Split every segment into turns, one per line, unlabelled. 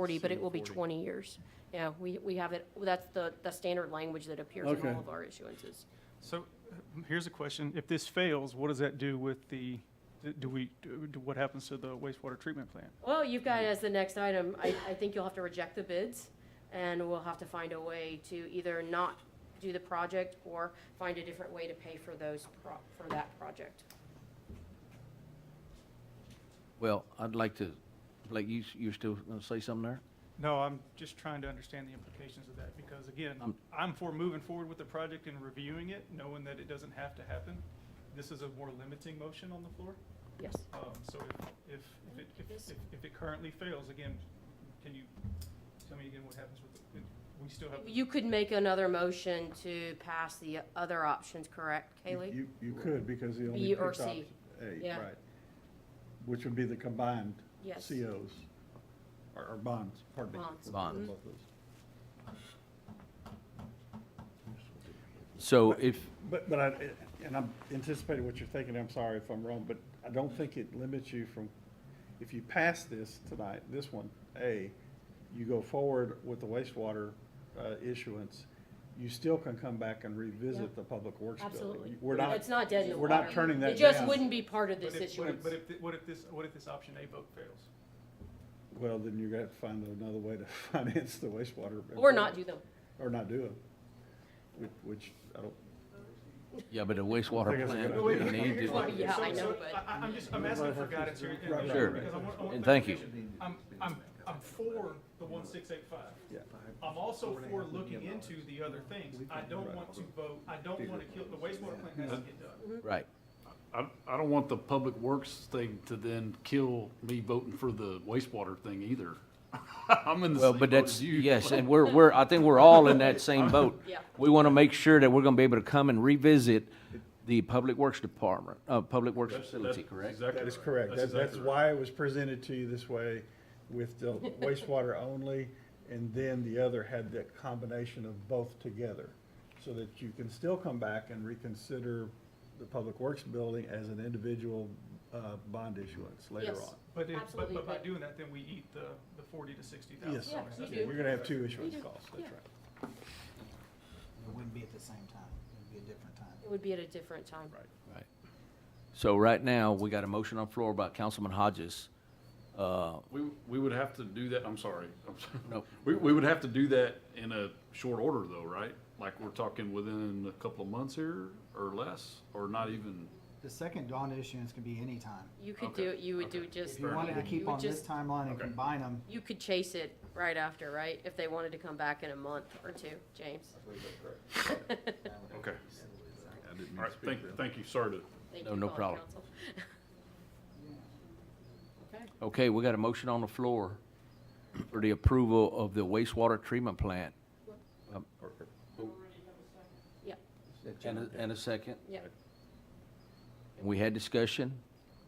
40, but it will be
40.
20 years. Yeah, we, we have it, that's the, the standard language that appears in
Okay.
all of our issuances.
So uh, here's a question. If this fails, what does that do with the, do we, do, what happens to the wastewater treatment plant?
Well, you've got as the next item, I, I think you'll have to reject the bids, and we'll have to find a way to either not do the project or find a different way to pay for those, pro- for that project.
Well, I'd like to, Blake, you, you're still gonna say something there?
No, I'm just trying to understand the implications of that because again,
Um,
I'm for moving forward with the project and reviewing it, knowing that it doesn't have to happen. This is a more limiting motion on the floor.
Yes.
Um, so if, if, if it, if, if, if it currently fails, again, can you tell me again what happens with, the- we still have,
You could make another motion to pass the other options, correct, Kaylee?
You, you could, because he only
B or
picked
C.
option A,
Yeah.
right. Which would be the combined
Yes.
COs, or, or bonds, pardon me.
Bonds.
Bonds.
Both those.
So if,
But, but I, and I'm anticipating what you're thinking, I'm sorry if I'm wrong, but I don't think it limits you from, if you pass this tonight, this one, A, you go forward with the wastewater uh, issuance, you still can come back and revisit the Public Works building.
Absolutely.
We're not.
It's not dead in the
We're not
water.
turning that down.
It just wouldn't be part of
but
this
if, but if,
issuance.
but if, thi- what if this, what if this option A vote fails?
Well, then you're gonna have to find another way to finance the wastewater.
Or not do them.
Or not do it, which, which, I don't,
yeah, but a
I
wastewater
think it's a
plant,
good
Wait,
we
idea.
wait,
need
here's what-
Well, yeah,
to,
so-
I know,
so
but-
I, am just, I'm asking for guidance here.
Right, right,
Sure.
because I want- I want
And thank you.
clarification. I'm, I'm, I'm for the one six eight five.
yeah.
I'm also for looking into the other things. I don't want to vote, I don't want to kill, the wastewater plant has to get
Mm-hmm.
done.
right.
I, I don't want the public works thing to then kill me voting for the wastewater thing either. I'm in the
Well,
same
but
boat as
that's,
you.
yes, and we're, we're, I think we're all in that same boat.
Yeah.
We want to make sure that we're going to be able to come and revisit the Public Works Department, uh, Public Works Facility, correct?
That is correct. That- That's why it was presented to you this way with the wastewater only, and then the other had the combination of both together. So that you can still come back and reconsider the Public Works building as an individual, uh, bond issuance later
Yes.
on.
But if, but,
Absolutely,
but by
but-
doing that, then we eat the, the forty to sixty
Yes.
thousand.
Yeah, you do.
You're gonna have two issuance
do.
costs, that's
Yeah.
right.
It wouldn't be at the same time, it would be a different time.
It would be at a different time.
Right. So right now, we got a motion on the floor by Councilman Hodges. Uh,
We, we would have to do that, I'm sorry, I'm sorry.
Nope.
We, we would have to do that in a short order though, right? Like we're talking within a couple of months here or less, or not even,
The second bond issuance can be any time.
You could
Okay,
do, it. you would do
okay.
just.
If you wanted to
you
keep
would
on this
just-
timeline and
Okay.
combine them,
You could chase it right after, right? If they wanted to come back in a month or two, James.
okay. All right, thank, thank you, sorry to.
Thank
No,
you,
no
Colin
problem.
Council. Okay,
Okay, we got a motion on the floor for the approval of the wastewater treatment plant. Um,
yeah,
And a, and a second.
yeah.
We had discussion.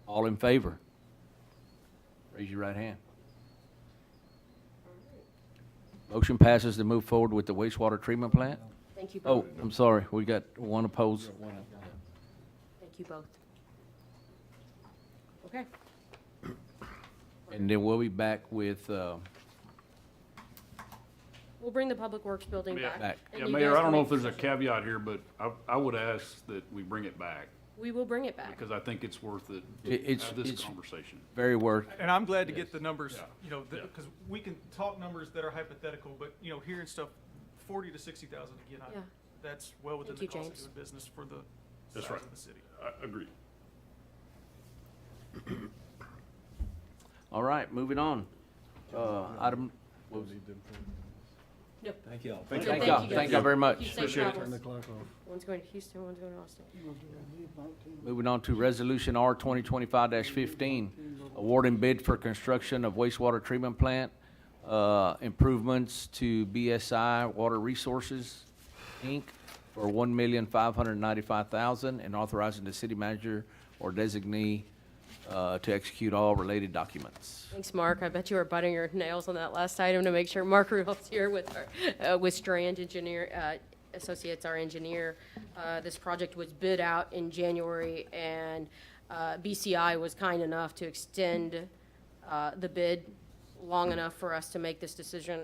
All in favor? Raise your right hand. Motion passes to move forward with the wastewater treatment plant.
Thank you
Oh,
both.
I'm sorry, we got one opposed.
Thank you both. Okay,
And then we'll be back with, uh,
we'll bring the Public Works building
Yeah.
back.
Back.
and
Yeah,
you
Mayor,
guys
I don't
can
know
make
if there's a
decisions.
caveat here, but I, I would ask that we bring it back
We will bring it back.
because I think it's worth it.
It- it's-
Have this
it's-
conversation.
very worth,
And I'm glad to get the numbers,
Yeah.
you know,
Yeah.
because we can talk numbers that are hypothetical, but, you know, hearing stuff, forty to sixty thousand, again, I,
Yeah.
that's well within the
Thank you,
cost of
James.
doing business for the
That's
size
right.
of the city.
I agree.
all right, moving on. Uh, item,
We'll need them for-
No.
Thank y'all.
Thank
thank
Thank
y'all,
you,
thank
guys.
y'all very
You
much.
safe
Turn
travels.
the clock off.
One's going to Houston, one's going to Austin.
Moving on to Resolution R twenty twenty-five fifteen, awarding bid for construction of wastewater treatment plant, uh, improvements to BSI Water Resources, Inc., for one million five hundred ninety-five thousand, and authorizing the city manager or designee, uh, to execute all related documents.
Thanks, Mark. I bet you were biting your nails on that last item to make sure Mark Rudolph's here with our, uh, with Strand Engineer, uh, Associates, our engineer. Uh, this project was bid out in January and, uh, BCI was kind enough to extend, uh, the bid long enough for us to make this decision